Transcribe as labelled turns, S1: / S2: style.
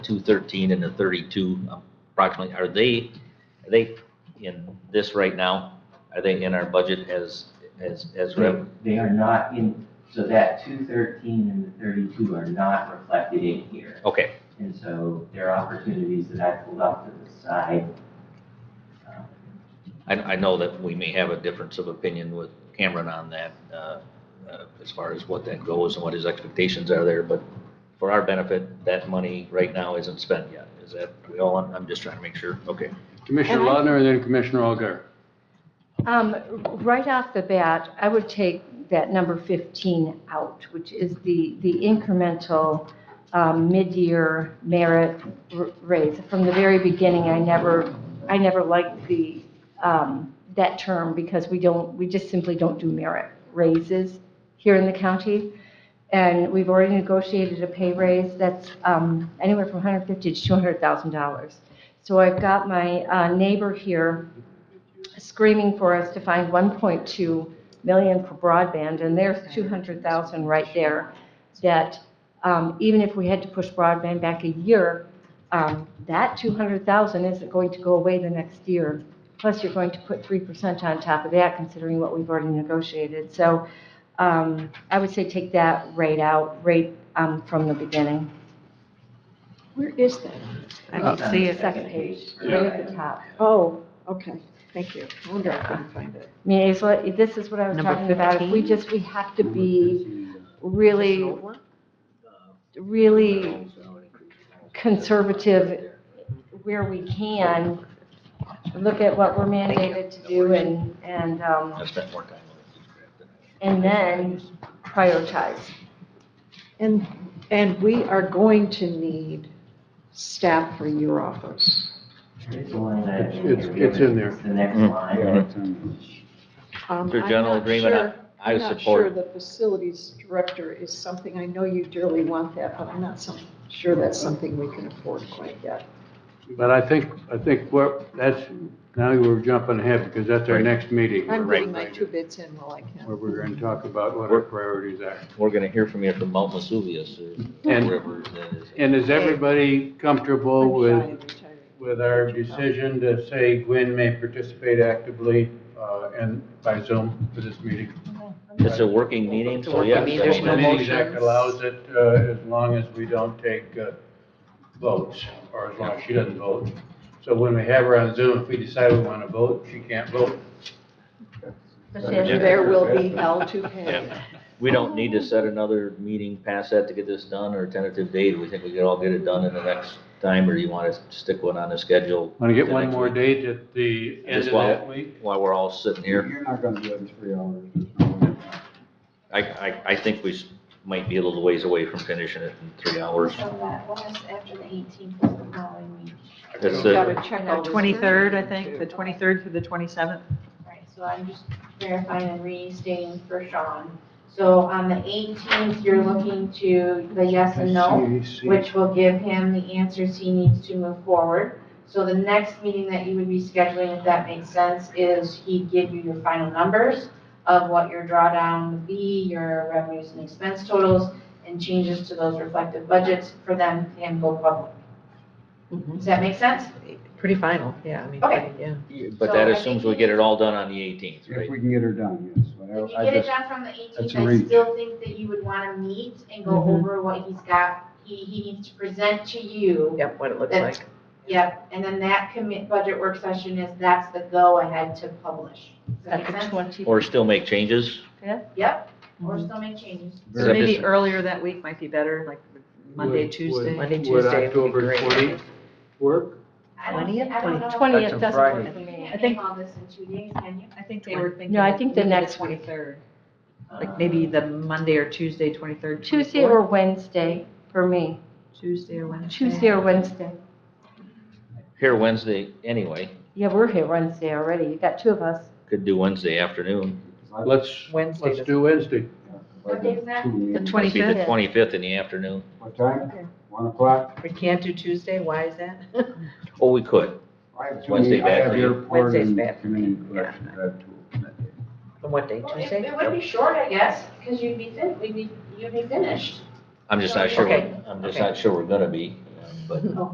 S1: two thirteen and the thirty-two approximately, are they, are they in this right now? Are they in our budget as, as, as rev?
S2: They are not in, so that two thirteen and the thirty-two are not reflected in here.
S1: Okay,
S2: And so there are opportunities that I pulled off to the side. Um,
S1: I, I know that we may have a difference of opinion with Cameron on that, uh, uh, as far as what that goes and what his expectations are there, but for our benefit, that money right now isn't spent yet. Is that, we all, on- I'm just trying to make sure, okay.
S3: Commissioner
S4: And I-
S3: Lautner and then Commissioner Algar.
S4: Um, Right off the bat, I would take that number 15 out, which is the, the incremental um, mid-year merit r- raise. From the very beginning, I never, I never liked the, um, that term because we don't, we just simply don't do merit raises here in the county. And we've already negotiated a pay raise that's um, anywhere from 150 to $200,000. So I've got my uh, neighbor here screaming for us to find 1.2 million for broadband, and there's 200,000 right there, that um, even if we had to push broadband back a year, um, that 200,000 isn't going to go away the next year. Plus, you're going to put 3% on top of that, considering what we've already negotiated. So um, I would say take that rate out, rate um, from the beginning.
S5: Where is that? I
S2: Uh,
S5: don't see it.
S4: Second page,
S2: Yeah.
S4: right at the top.
S5: Oh, okay, thank you. I wonder if I can find it.
S4: I mean, it's what, this is what I was
S5: Number
S4: talking about. If We
S5: 15?
S4: just, we have to be really really conservative where we can, look at what we're mandated to do and, and,
S1: I
S4: um,
S1: spent more time on it.
S4: and then prioritize.
S5: And, and we are going to need staff for your office.
S2: It's a line item in
S3: It's-
S2: here.
S3: it's in there.
S2: It's the next
S1: Mm.
S2: line.
S5: Um,
S1: Your
S5: I'm
S1: general
S5: not
S1: agreement,
S5: sure-
S1: I
S5: I'm not sure
S1: support,
S5: the facilities director is something, I know you dearly want that, but I'm not so sure that's something we can afford quite yet.
S3: But I think, I think what, that's, now we're jumping ahead because that's our
S1: Right.
S3: next meeting.
S5: I'm
S1: Right.
S5: getting my two bits in while I
S3: Where
S5: can.
S3: we're going to talk about what our priorities are.
S1: we're gonna hear from you from Mount Vesuvius or
S3: And-
S1: wherever that is.
S3: And is everybody comfortable
S5: I'm shy
S3: with,
S5: of retiring.
S3: with our decision to say Gwen may participate actively uh, and by Zoom for this meeting?
S1: It's a working meeting, so yes. I
S3: The
S1: mean,
S3: Meetings Act allows it uh, as long as we don't take uh, votes, or as long as she doesn't vote. So when we have her on Zoom, if we decide we want to vote, she can't vote.
S4: Especially as-
S5: There will be hell to pay.
S1: We don't need to set another meeting past that to get this done or a tentative date. We think we could all get it done in the next time, or you wanna stick one on the schedule?
S3: Want to get
S1: the
S3: one
S1: next
S3: more
S1: week?
S3: date at the end
S1: Just
S3: of
S1: while-
S3: that week?
S1: While we're all sitting here, Hmm.
S6: You're not gonna do it in three hours.
S1: I, I, I think we s- might be a little ways away from finishing it in three hours.
S7: So that was after the 18th of the following week,
S1: That's
S5: Got
S1: it.
S5: to check all
S8: No,
S5: this.
S8: 23rd, I think, the 23rd through the 27th.
S7: right? So I'm just verifying and restating for Sean. So on the 18th, you're looking to the yes and no, which will give him the answers he needs to move forward. So the next meeting that you would be scheduling, if that makes sense, is he'd give you your final numbers of what your drawdown would be, your revenues and expense totals, and changes to those reflective budgets for them and go public.
S5: Mhm.
S7: Does that make sense?
S5: Pretty final, yeah, I mean,
S7: Okay.
S5: yeah.
S1: But that assumes we get it all done on the eighteenth,
S6: If
S1: right?
S6: we can get her done, yes. But
S7: If you
S6: I- I
S7: get it
S6: just-
S7: done from the
S6: that's
S7: eighteenth,
S6: a
S7: I
S6: reach.
S7: still think that you would wanna meet and go
S5: Mhm.
S7: over what he's got, he, he needs to present to you.
S5: Yep, what it looks
S7: That's-
S5: like.
S7: Yep, and then that commit, budget work session is, that's the go-ahead to publish. Does that
S4: At
S7: make
S4: the
S7: sense?
S4: 20
S1: Or still make changes?
S7: Yep,
S5: Mm-hmm.
S7: or
S4: Mm-hmm.
S7: still make changes.
S1: Is
S8: So
S1: that
S8: maybe
S1: just-
S8: earlier that week might be better, like Monday,
S3: Would-
S8: Tuesday.
S3: would- Would
S5: Tuesday would be
S3: October
S5: great.
S3: 20th work?
S7: I don't, think-
S8: 20th?
S7: I don't know.
S4: 20th
S6: That's a
S4: doesn't work
S6: Friday.
S4: for
S7: You
S4: me.
S7: can't
S8: think-
S7: make all this in two days, can you?
S8: I think they were thinking.
S4: No, I think the
S8: maybe
S4: next week.
S8: 23rd, like maybe the Monday or Tuesday, 23rd.
S4: Tuesday
S8: 24th.
S4: or Wednesday for me.
S8: Tuesday or Wednesday.
S4: Tuesday or Wednesday.
S1: Here Wednesday, anyway,
S4: Yeah, we're here Wednesday already. You got two of us.
S1: could do Wednesday afternoon.
S3: Let's,
S5: Wednesday
S3: let's
S5: does-
S3: do Wednesday.
S7: What day is that?
S8: The
S1: It'd be the
S8: 25th.
S1: twenty-fifth in the afternoon.
S6: What time? One o'clock?
S5: We can't do Tuesday, why is that?
S1: Oh, we could.
S6: I have two
S1: Wednesday
S6: meetings. I
S1: bad
S6: have
S1: for you.
S6: airport
S5: Wednesday's
S6: and
S5: bad for me.
S6: community corrections. I have two.
S5: On what day,
S7: Well, it-
S5: Tuesday?
S7: It would be short, I guess, cause you'd be fin, we'd be, you'd be finished.
S1: I'm just not sure,
S5: Okay.
S1: I'm just not sure we're gonna be. uh, but